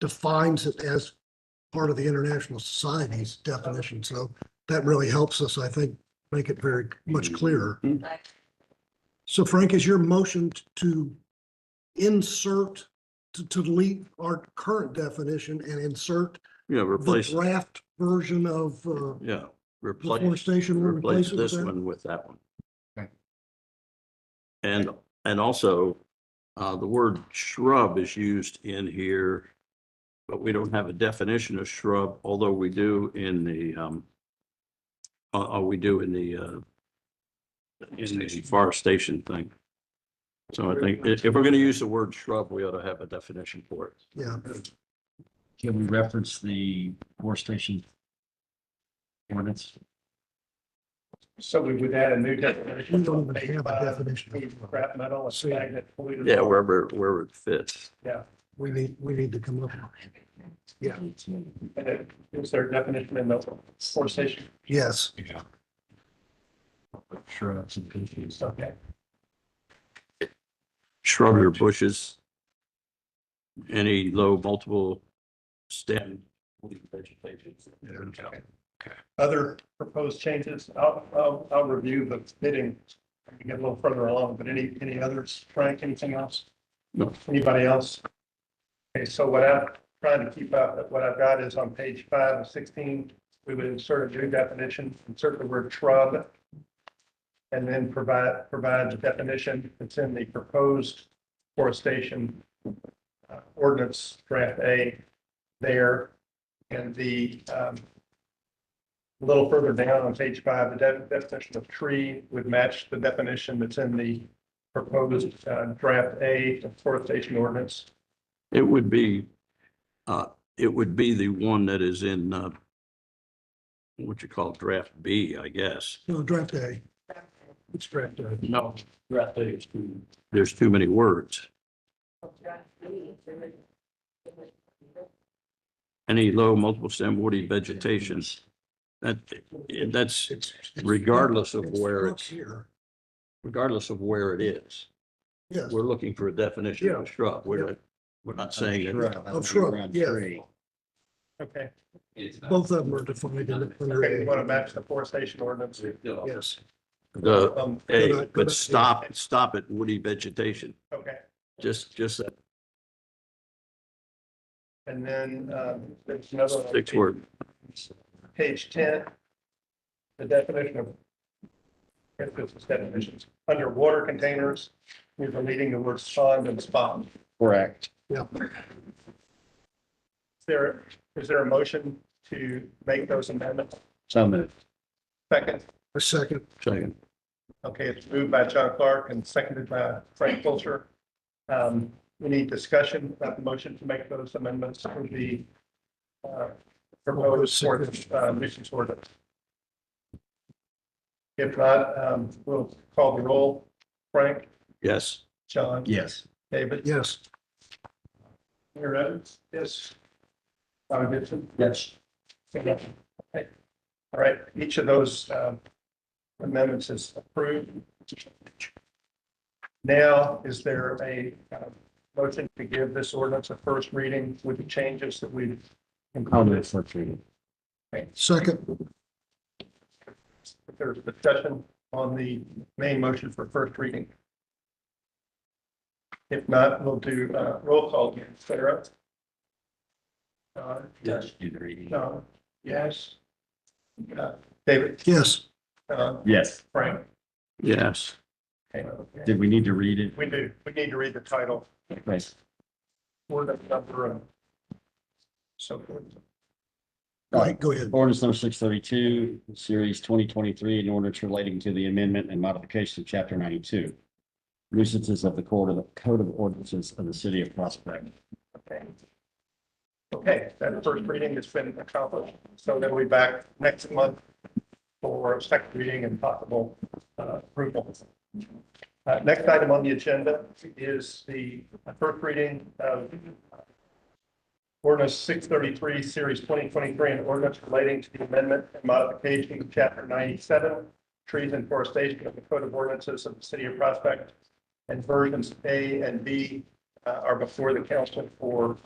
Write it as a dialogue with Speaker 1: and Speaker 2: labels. Speaker 1: defines it as part of the International Society's definition. So that really helps us, I think, make it very
Speaker 2: Mm-hmm.
Speaker 1: much clearer. So Frank, is your motion t- to insert, to, to delete our current definition and insert
Speaker 2: Yeah,
Speaker 1: the
Speaker 2: replace,
Speaker 1: draft version of, uh,
Speaker 2: yeah, replace,
Speaker 1: deforestation? we'll
Speaker 2: replace
Speaker 1: it with
Speaker 2: this
Speaker 1: that?
Speaker 2: one with that one.
Speaker 3: Okay.
Speaker 2: And, and also, uh, the word shrub is used in here, but we don't have a definition of shrub, although we do in the, um, uh, uh, we do in the, uh, in the forestation thing. So I think if, if we're gonna use the word shrub, we ought to have a definition for it.
Speaker 1: Yeah,
Speaker 3: Can we reference the forestation ordinance?
Speaker 4: So we would add a
Speaker 1: we
Speaker 4: new definition.
Speaker 1: don't even have a definition.
Speaker 4: Of Scrap metal, and stagnant polluted.
Speaker 2: Yeah, wherever, wherever it fits.
Speaker 1: We need, we need to come up. with- Yeah,
Speaker 4: And it- Is there a definition in the forestation?
Speaker 1: yes.
Speaker 3: Yeah. Sure, that's confused.
Speaker 4: Okay,
Speaker 2: shrubs or bushes. Any low multiple stem. vegetation.
Speaker 4: other proposed changes, I'll, I'll, I'll review the bidding. when we Get a little further along, but any, any others, Frank, anything else?
Speaker 2: No.
Speaker 4: Anybody else? Okay, so what I'm trying to keep up, what I've got is on page five of sixteen, we would insert a new definition, insert the word shrub. And then provide, provide the definition that's in the proposed forestation uh, ordinance draft A there. And the, um, a little further down on page five, the de- definition of tree would match the definition that's in the proposed uh, draft A of forestation ordinance.
Speaker 2: It would be, uh, it would be the one that is in, uh, what you call draft B, I guess.
Speaker 1: No, draft A. It's draft A.
Speaker 2: No, draft A is too. There's too many words. Any low multiple stem woody vegetation. That, that's
Speaker 1: It's- it's-
Speaker 2: regardless of where
Speaker 1: It's
Speaker 2: it's,
Speaker 1: here.
Speaker 2: regardless of where it is.
Speaker 1: Yes,
Speaker 2: We're looking for a definition of a shrub. We're, not- we're not saying that.
Speaker 1: Of shrub, yeah.
Speaker 4: Okay,
Speaker 1: Both of them are defined in the
Speaker 4: okay, you
Speaker 1: preliminary.
Speaker 4: want to match the forestation ordinance.
Speaker 1: Yes,
Speaker 2: The
Speaker 4: Um,
Speaker 2: A, but stop, stop at woody vegetation,
Speaker 4: okay,
Speaker 2: just, just that
Speaker 4: and then, um, there's another. one on
Speaker 2: six word.
Speaker 4: Page ten, the definition of. if this is definitions, underwater containers, we're deleting the words pond and spot. Is
Speaker 3: Correct.
Speaker 4: there, is there a motion to make those amendments?
Speaker 3: So moved.
Speaker 4: Second?
Speaker 1: a second,
Speaker 2: Second.
Speaker 4: Okay, it's moved by John Clark and seconded by Frank Wiltshire. Um, we need discussion about the motion to make those amendments to the uh, proposed sort, uh, nuisance ordinance. If not, um, we'll call the roll. Frank,
Speaker 2: Yes,
Speaker 4: John,
Speaker 3: Yes.
Speaker 4: David,
Speaker 1: yes.
Speaker 4: Mayor Evans, yes. Bobby Gibson. Yes. Okay. All right, each of those, um, amendments is approved. Now, is there a uh, motion to give this ordinance a first reading with the changes that we've
Speaker 3: I'll
Speaker 4: included?
Speaker 3: move for three.
Speaker 1: Second,
Speaker 4: If there's discussion on the main motion for first reading. If not, we'll do uh, roll call again. Sarah? John?
Speaker 3: Yes. Do the reading.
Speaker 4: John? Yes. Uh, David?
Speaker 1: yes,
Speaker 4: Uh,
Speaker 3: Yes.
Speaker 4: Frank?
Speaker 2: yes,
Speaker 4: Okay.
Speaker 3: Did we need to read it?
Speaker 4: We do, we need to read the title.
Speaker 3: Yes.
Speaker 4: Word number and so forth.
Speaker 1: Go ahead, go ahead.
Speaker 3: Ordinance number six thirty-two, series twenty twenty-three, an ordinance relating to the amendment and modification of chapter ninety-two. Nuisances of the code of, code of ordinances of the city of Prospect.
Speaker 4: Okay. Okay, that first reading has been accomplished, so then we'll be back next month for second reading and possible uh, approval. Uh, Next item on the agenda is the first reading of ordinance six thirty-three, series twenty twenty-three, an ordinance relating to the amendment and modification of chapter ninety-seven, trees and forestation of the code of ordinances of the city of Prospect, and versions A and B uh, are before the council for